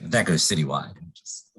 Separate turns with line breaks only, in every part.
that goes citywide. Just-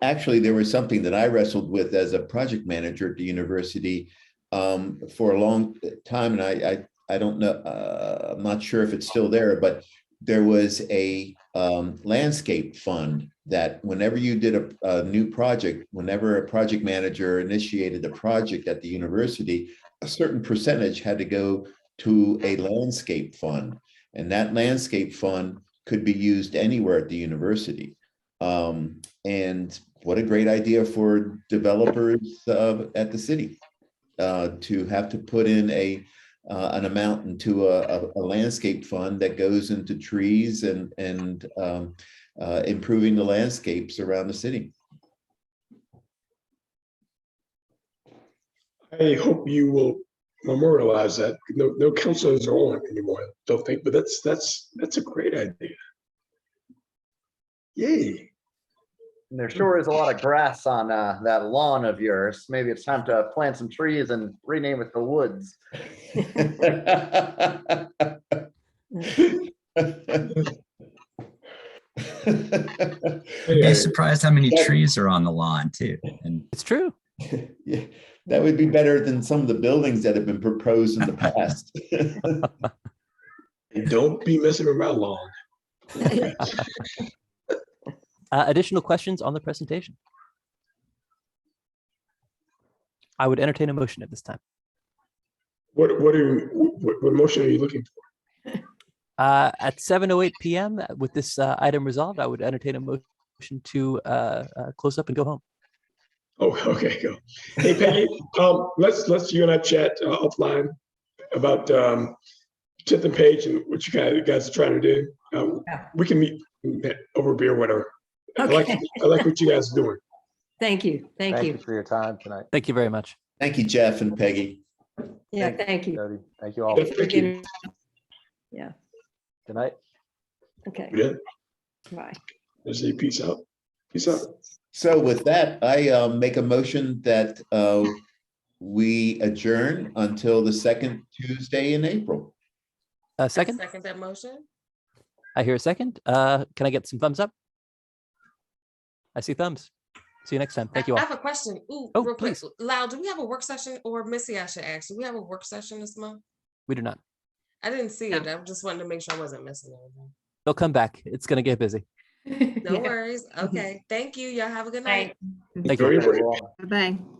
Actually, there was something that I wrestled with as a project manager at the university um, for a long time, and I, I, I don't know, uh, I'm not sure if it's still there, but there was a um, landscape fund that whenever you did a, a new project, whenever a project manager initiated a project at the university, a certain percentage had to go to a landscape fund, and that landscape fund could be used anywhere at the university. Um, and what a great idea for developers uh, at the city uh, to have to put in a uh, an amount into a, a, a landscape fund that goes into trees and and um, uh, improving the landscapes around the city.
I hope you will memorialize that. No, no councilors are on anymore, I don't think, but that's, that's, that's a great idea. Yay.
And there sure is a lot of grass on uh, that lawn of yours. Maybe it's time to plant some trees and rename it the woods.
You'd be
Anyway,
surprised how many trees are on the lawn too. And
It's true.
Yeah, that would be better than some of the buildings that have been proposed in the past.
and Don't be messing around long.
Uh, additional questions on the presentation? I would entertain a motion at this time.
What, what are, you- what, what motion are you looking for?
Uh, at 7:08 p.m. with this uh, item resolved, I would entertain a motion to uh, uh, close up and go home.
Oh, okay, go. Hey Peggy, um, let's, let's, you and I chat uh, offline about, um, Tenth and Page and what you guys, guys are trying to do. Um,
Yeah.
we can meet over beer, whatever. I like,
Okay.
I like what you guys are doing.
Thank you, thank you.
For your time tonight,
Thank you very much.
Thank you, Jeff and Peggy.
Yeah, thank you.
Jody. Thank you all.
Yeah, thank you.
Good night.
Okay,
Yeah,
bye.
let's say peace out. Peace out.
So with that, I uh, make a motion that uh, we adjourn until the second Tuesday in April.
Uh,
I
second,
Second that motion?
I hear a second. Uh, can I get some thumbs up? I see thumbs. See you next time. Thank you
I
all.
have a question. Ooh,
Oh,
real quick.
please.
Lyle, do we have a work session or Missy, I should ask, do we have a work session this month?
We do not.
I didn't see it. I just wanted to make sure I wasn't missing anything.
They'll come back. It's gonna get busy. Mm-hmm.
No worries. Okay. Thank you. Y'all have a good night.
Thank you.
Very
Very
important.
well.
Bye-bye.